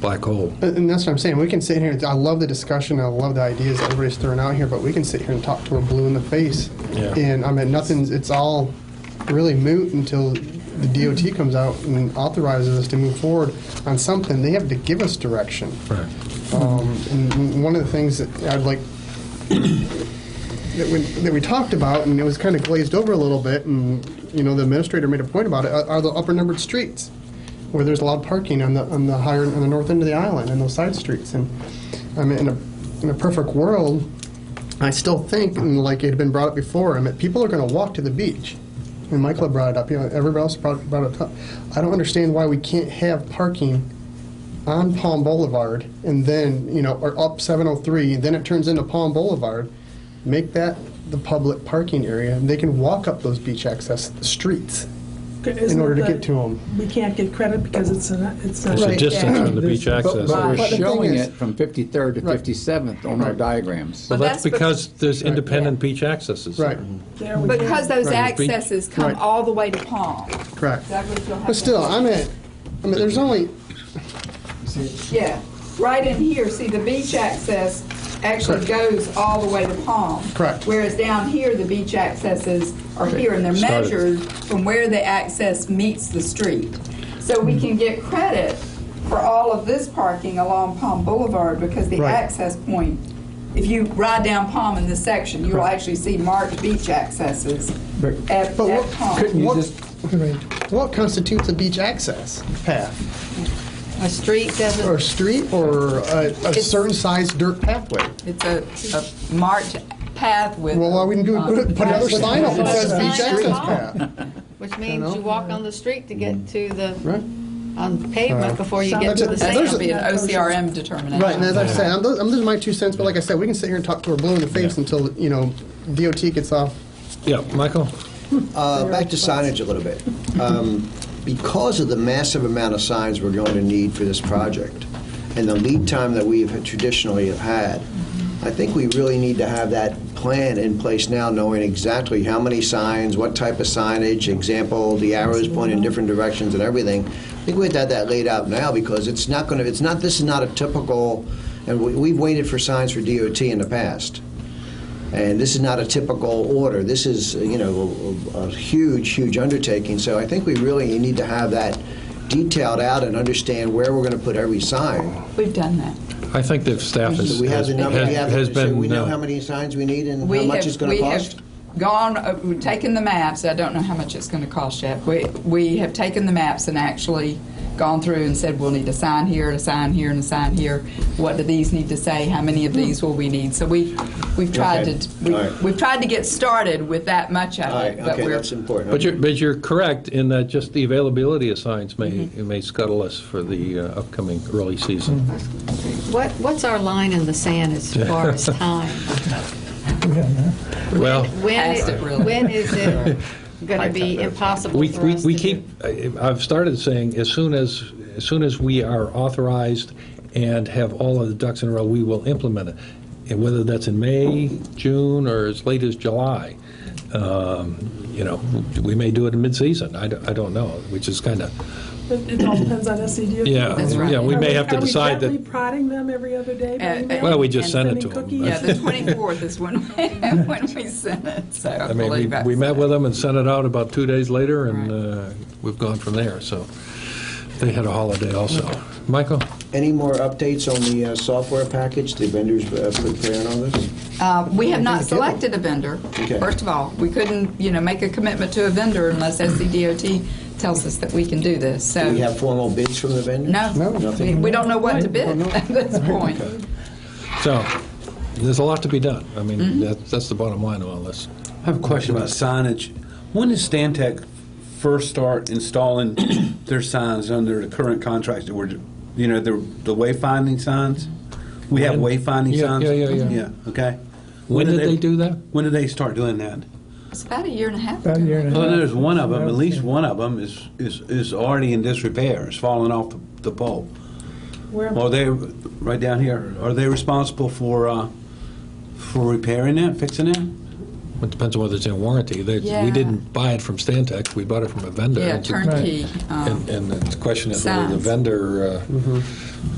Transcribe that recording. black hole. And that's what I'm saying. We can sit here. I love the discussion. I love the ideas that everybody's throwing out here, but we can sit here and talk till we're blue in the face. Yeah. And I mean, nothing's. It's all really moot until the DOT comes out and authorizes us to move forward on something. They have to give us direction. Right. Um, and one of the things that I'd like that we, that we talked about, and it was kind of glazed over a little bit, and you know the administrator made a point about it, are are the upper numbered streets where there's allowed parking on the on the higher on the north end of the island and those side streets. And I mean, in a in a perfect world, I still think, and like it had been brought up before, I mean, people are going to walk to the beach. And Michael had brought it up. You know, everybody else brought, brought it up. I don't understand why we can't have parking on Palm Boulevard and then, you know, or up 703, and then it turns into Palm Boulevard. Make that the public parking area, and they can walk up those beach access streets. Isn't order to that- get to 'em. We can't get credit because it's an, it's There's a a. distance from the beach But- access. but- But But we're the thing showing is- it from 53rd to Right. 57th on our diagrams. Well, that's Well, that's because there's independent Yeah. beach accesses. Mm-hmm. Right, There we go. Because those Right. accesses come Right. all the way to Palm. correct. Douglas, you'll have But to- still, I'm at, I mean, there's only, Yeah, right in here, see, the beach access actually goes all the way to Palm. Correct. Whereas down here, the beach accesses are here, and they're Started. measured from where the access meets the street. So we Mm-hmm. can get credit for all of this parking along Palm Boulevard, because the Right. access point, if you ride down Palm in this section, you'll actually see marked beach accesses But- at But at what- Palm. Couldn't you What- just, what constitutes a beach access path? A street Or doesn't, street, or a, a certain size dirt pathway? It's a a marked path with. Well, all we can do uh, is put put another sign up that says Sign beach access up. path. which You know? means you walk on the street to get to the, Right. on pavement before you get That's to a- the That's there's going to a- sand. be an OCRM determination. Right, and as I said, I'm, those, I'm, those are my two cents, but like I said, we can sit here and talk till we're blue in the face until, you know, DOT gets off. Yeah, Michael? Uh, Back to signage a little bit. Um, Because of the massive amount of signs we're going to need for this project, and the lead time that we've traditionally have had, I think we really need to have that plan in place now, knowing exactly how many signs, what type of signage, example, the arrows pointing in different directions and everything. I think we have to have that laid out now, because it's not going to, it's not, this is not a typical, and we- we've waited for signs for DOT in the past. And this is not a typical order. This is, you know, a, a huge, huge undertaking. So I think we really need to have that detailed out and understand where we're going to put every sign. We've done that. I think the staff has, we have has the number. We have the, has so we been, know uh, how many signs we need and We how much have- it's going we to have cost. Gone, uh, we've taken the maps, I don't know how much it's going to cost yet. We, we have taken the maps and actually gone through and said, we'll need a sign here, and a sign here, and a sign here. What do these need to say? How many of these will we need? So we, we've tried Okay. to, All we- right. we've tried to get started with that much All of right. it. but Okay, we're- that's important. But you're, but you're correct in that just the availability of signs may, it may scuttle us for the uh, upcoming early season. What, what's our line in the sand as far as time? Well, When, Past it, really. when is it going to be impossible we, for we us to we do? keep, I- I've started saying, as soon as, as soon as we are authorized and have all of the ducks in a row, we will implement it. And whether that's in May, June, or as late as July, um, you know, we may do it in mid-season, I don't, I don't know, which is kind of, It it all depends on SED. yeah, That's right. yeah, we may Are have to are we decide gently that, prodding them every other day by Uh, email? well, we just sent And it to sending them. cookies? but- Yeah, the 24th is when, when we sent it, so I I mean, we, believe that's. we met with them and sent it out about two days later, and Right. uh, we've gone from there, so they had a holiday also. Michael? Any more updates on the uh, software package the vendors uh, preparing all this? Uh, We have not selected a vendor, Okay. first of all. We couldn't, you know, make a commitment to a vendor unless SCDOT tells us that we can do this, so. Do we have formal bids from the vendors? No, we- we don't know what to bid at this point. So, there's a lot to be done. I Mm-hmm. mean, that- that's the bottom line of all this. I have a question about signage. When did Stantec first start installing their signs under the current contracts that we're, you know, the, the wayfinding signs? We have When? wayfinding Yeah, signs? yeah, yeah, yeah. okay. When did they do that? When did they start doing that? It's about a year and a half About a year ago. and a half. Well, there's one of them, at least one of them is, is, is already in disrepair. It's fallen off the, the pole. Where- Are they, right down here, are they responsible for, uh, for repairing that, fixing that? It depends on whether it's in warranty. They- Yeah. We didn't buy it from Stantec, we bought it from a vendor. Yeah, It's a- turnkey. um, And and the question is whether the Signs. vendor uh,